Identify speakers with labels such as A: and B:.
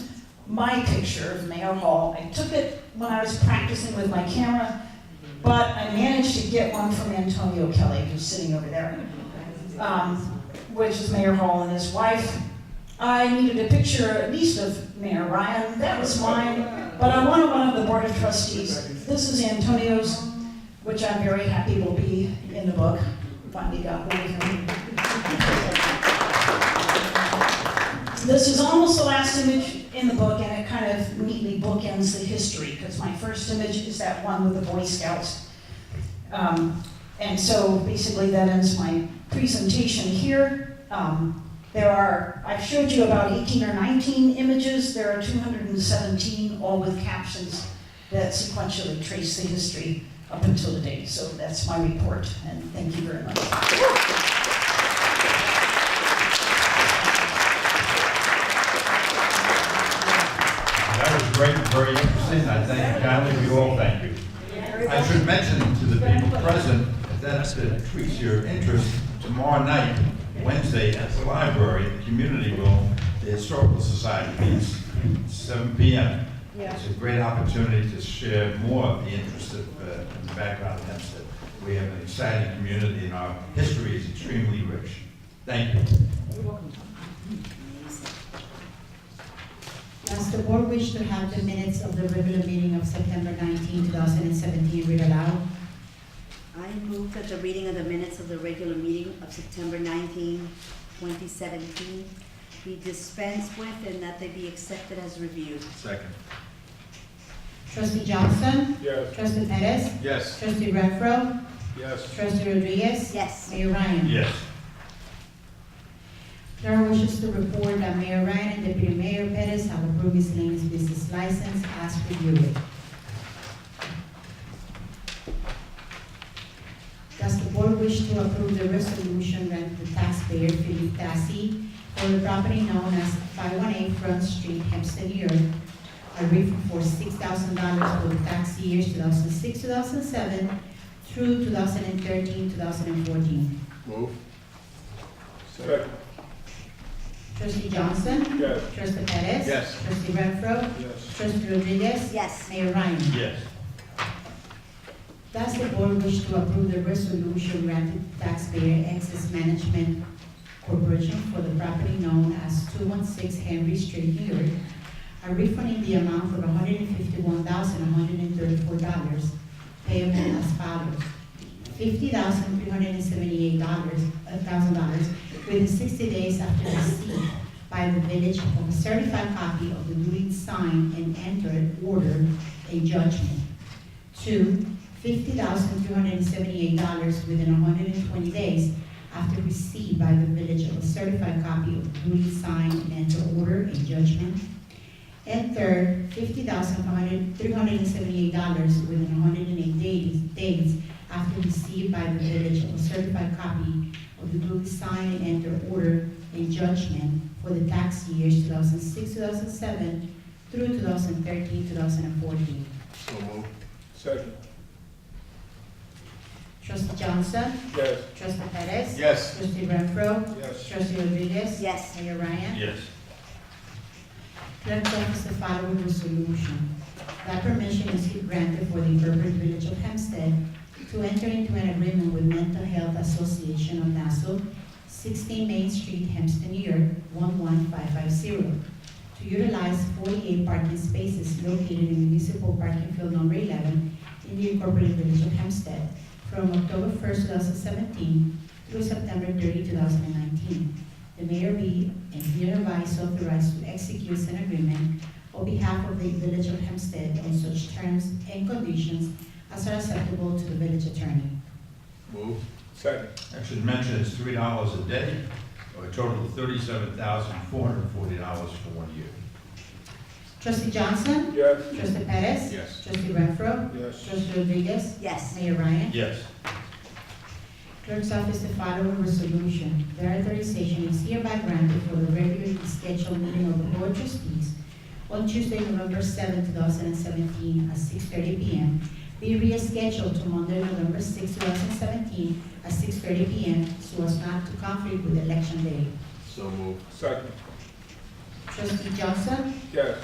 A: my picture of Mayor Hall. I took it when I was practicing with my camera, but I managed to get one from Antonio Kelly, who's sitting over there, um, which is Mayor Hall and his wife. I needed a picture at least of Mayor Ryan. That was mine, but I wanted one of the Board of Trustees. This is Antonio's, which I'm very happy will be in the book. Finally got one of them. This is almost the last image in the book, and it kind of neatly bookends the history, because my first image is that one with the Boy Scouts. Um, and so basically that ends my presentation here. Um, there are, I've showed you about 18 or 19 images, there are 217, all with captions that sequentially trace the history up until today. So that's my report, and thank you very much.
B: That was great, and very interesting, I thank, kindly we all thank you. I should mention to the people present, that if it tweaks your interest, tomorrow night, Wednesday, at the library, the community room, the Historical Society meets, seven P M. It's a great opportunity to share more of the interest of, uh, and the background of Hempstead. We have an exciting community, and our history is extremely rich. Thank you.
C: Does the board wish to have the minutes of the regular meeting of September 19, 2017 read aloud?
D: I move that the reading of the minutes of the regular meeting of September 19, 2017 be dispensed with and that they be accepted as reviewed.
B: Second.
C: Trustee Johnson?
E: Yes.
C: Trustee Perez?
B: Yes.
C: Trustee Renfro?
E: Yes.
C: Trustee Rodriguez?
D: Yes.
C: Mayor Ryan?
B: Yes.
C: There are wishes to report that Mayor Ryan and Deputy Mayor Perez have approved miscellaneous business license as reviewed. Does the board wish to approve the resolution that the taxpayer Philip Tassi for the property known as 518 Front Street, Hempstead, New York, a refund for $6,000 for the tax years 2006, 2007 through 2013, 2014?
E: Move. Second.
C: Trustee Johnson?
E: Yes.
C: Trustee Perez?
B: Yes.
C: Trustee Renfro?
E: Yes.
C: Trustee Rodriguez?
D: Yes.
C: Mayor Ryan?
B: Yes.
C: Does the board wish to approve the resolution granting taxpayer access management corporation for the property known as two one six Henry Street, New York, a refund in the amount of one hundred and fifty-one thousand, one hundred and thirty-four dollars payable as follows. Fifty thousand, three hundred and seventy-eight dollars, uh, thousand dollars within sixty days after receipt by the village of a certified copy of the duly signed and entered order in judgment. Two, fifty thousand two hundred and seventy-eight dollars within hundred and twenty days after received by the village of a certified copy of duly signed and entered order in judgment. And third, fifty thousand three hundred and seventy-eight dollars within hundred and eight days, days after received by the village of a certified copy of the duly signed and entered order in judgment for the tax years two thousand six, two thousand seven through 2013-2014.
E: So move. Second.
C: Trustee Johnson?
E: Yes.
C: Trustee Perez?
E: Yes.
C: Trustee Renfro?
E: Yes.
C: Trustee Rodriguez?
D: Yes.
C: Mayor Ryan?
B: Yes.
C: Clerk offers the following resolution. That permission is granted for the urban village of Hempstead to enter into an agreement with Mental Health Association of Nassau, 16 Main Street, Hempstead, New York, 11550, to utilize 48 parking spaces located in municipal parking field number 11 in the incorporated village of Hempstead from October 1st, 2017 through September 30, 2019. The mayor be and hereby is authorized to execute an agreement on behalf of the village of Hempstead on such terms and conditions as are acceptable to the village attorney.
E: Move. Second.
B: I should mention it's three dollars a day, or a total of thirty-seven thousand four hundred and forty dollars for one year.
C: Trustee Johnson?
E: Yes.
C: Trustee Perez?
B: Yes.
C: Trustee Renfro?
E: Yes.
C: Trustee Rodriguez?
D: Yes.
C: Mayor Ryan?
B: Yes.
C: Clerk's office the following resolution. Their authorization is hereby granted for the regularly scheduled meeting of the board of trustees on Tuesday, November 7, 2017, at 6:30 p.m. Be rescheduled to Monday, November 6, 2017, at 6:30 p.m. so as not to conflict with election day.
B: So moved.
E: Second.
C: Trustee Johnson?
E: Yes.